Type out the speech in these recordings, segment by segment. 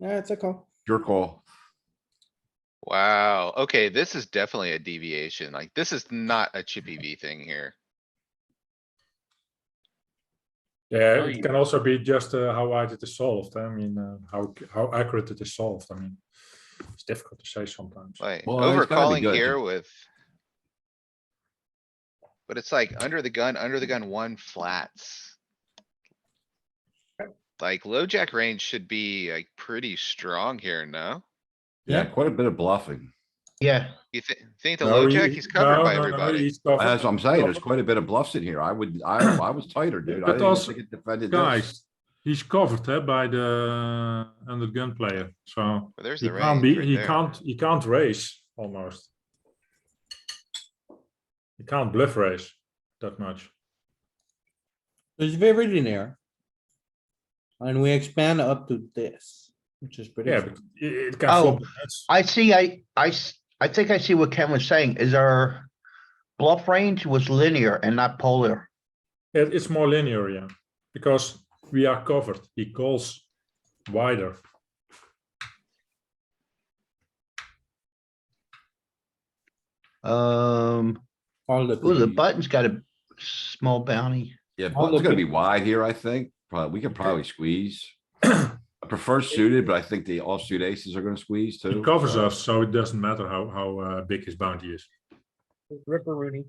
Yeah, it's a call. Your call. Wow, okay, this is definitely a deviation. Like, this is not a chippy V thing here. Yeah, Oh, it yeah. can also be just uh, how wide it is solved. I mean, uh, how c- how accurate it is solved. I mean, it's difficult to say sometimes. Like Well, it's gotta be overcalling good. here with. But it's like under the gun, under the gun, one flats. Like low jack range should be like pretty strong here, no? Yeah, quite a bit of bluffing. Yeah, You thi- think the No, low he- jack, he's covered no, by no, no, everybody? he's covered. As I'm saying, there's quite a bit of bluffs in here. I would, I, I was tighter, dude. I But didn't even also- think it defended this. Guys, he's covered eh, by the under gun player, so Well, There's he the range. can't be. right He there. can't. He can't raise almost. He can't bluff raise that much. It's very linear. And we expand up to this, which is pretty. Yeah, cool. but it, it can Oh, flop. That's- I see, I, I, s- I think I see what Ken was saying, is our bluff range was linear and not polar. It, it's more linear, yeah, because we are covered. He calls wider. Um, All the. ooh, the pieces. button's got a small bounty. Yeah, I'll button's look gonna at- be wide here, I think. Probably, we could probably squeeze. I prefer suited, but I think the offsuit aces are gonna squeeze too. It covers us, so it doesn't matter how how uh, big his bounty is. Ripper Rooney.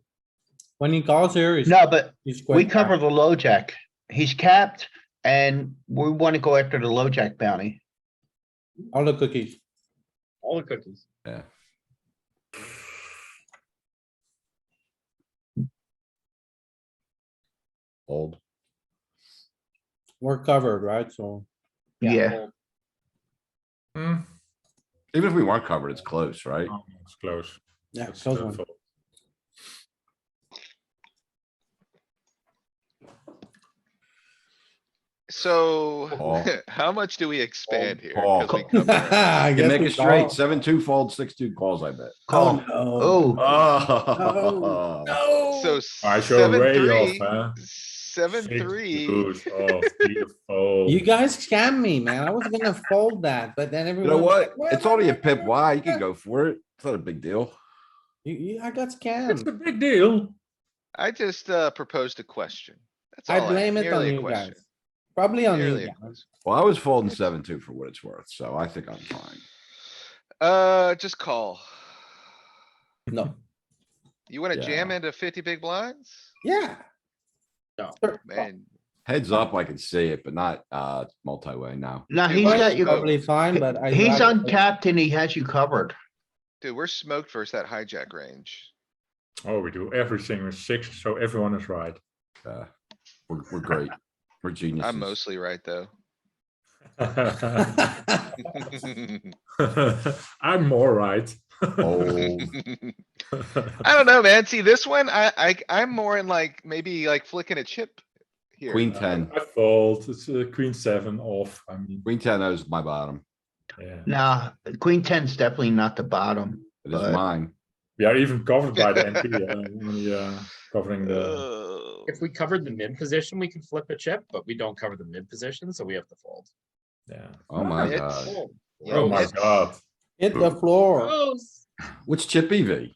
When he calls here, he's. No, but he's we quite cover back. the low jack. He's capped and we want to go after the low jack bounty. All the cookies. All the cookies. Yeah. Uh, Old. We're covered, right? So Yeah, Well, Hmm, Even if we weren't covered, it's close, right? oh, it's close. yeah, It's close still one. fold. So, Call. Oh. how much do we expand here? Call. 'Cause we cover it. I You guess can make we it straight, call. seven, two fold, six, two calls, I bet. call. Oh, Oh, Oh. So I show seven, way three, off. Huh? seven, Six three. deuce off, beautiful. no. You guys scammed me, man. I was gonna fold that, but then You everyone. know what? Well, It's well, only a well, pip well, wide. You can go for it. It's not a big deal. You, you, I got It's a scammed. big deal. I just, uh, proposed a question. That's I all blame it on merely a you question. guys. Probably on Merely you a guys. question. Well, I was folding seven, two for what it's worth, so I think I'm fine. Uh, just call. No, You wanna jam Yeah. into fifty big blinds? yeah. No. Sure. Man, Heads up, I can see it, but not, uh, multi-way now. now he's Mine's got you, Probably fine, but I. he's rather- uncapped and he has you covered. dude, we're smoked versus that hijack range. Oh, we do everything with six, so everyone is right. Uh, we're, we're great. We're geniuses. I'm mostly right, though. I'm more right. Oh, I don't know, man. See, this one, I, I, I'm more in like, maybe like flicking a chip. Here. queen ten, I fold. It's uh, queen seven off. I mean, queen ten is my bottom. yeah. Nah, queen ten's definitely not the bottom. It is But- mine. We are even covered by the NP, uh, when we, uh, covering Uh, the. Ugh. If we covered the mid position, we could flip a chip, but we don't cover the mid position, so we have to fold. Yeah. Oh my it's- god. Oh, Yeah, Oh my it's- god. Hit the floor. gross. What's chip E EV?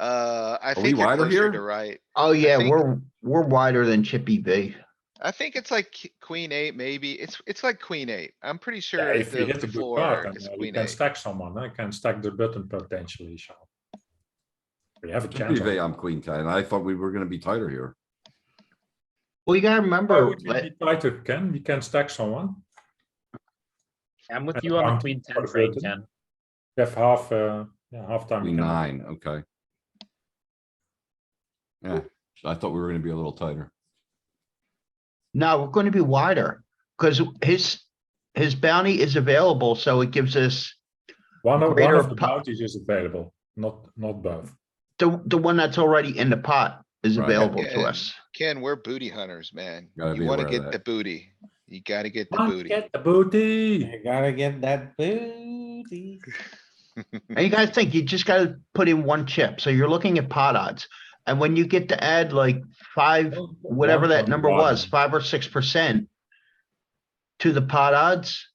Uh, I we think you're wider closer here? to right. Oh, yeah, think- we're, we're wider than Chippy V. I think it's like k- queen eight, maybe. It's, it's like queen eight. I'm pretty Yeah, sure if we the hit a the good floor card, then is uh, we queen can eight. stack someone. I can stack the button potentially, so. We have a Chip chance. EV, I'm queen ten. I thought we were gonna be tighter here. Well, you gotta Why remember, would we let- be tighter, Ken? We can stack someone. I'm with And you on one the queen for ten the frame, button. Ken. We have half, uh, yeah, half time. we Queen can- nine, okay. Yeah, I thought we were gonna be a little tighter. no, we're gonna be wider, because his, his bounty is available, so it gives us One of, one Greater of the po- bounties is available, not, not both. the, the one that's already in the pot is Right. available to Yeah. us. Ken, we're booty hunters, man. Gotta You be wanna aware of get that. the booty. You gotta get the Don't booty. Get the booty. You gotta get that booty. And you gotta think, you just gotta put in one chip, so you're looking at pot odds. And when you get to add like five, whatever that number was, five or six percent to the pot odds,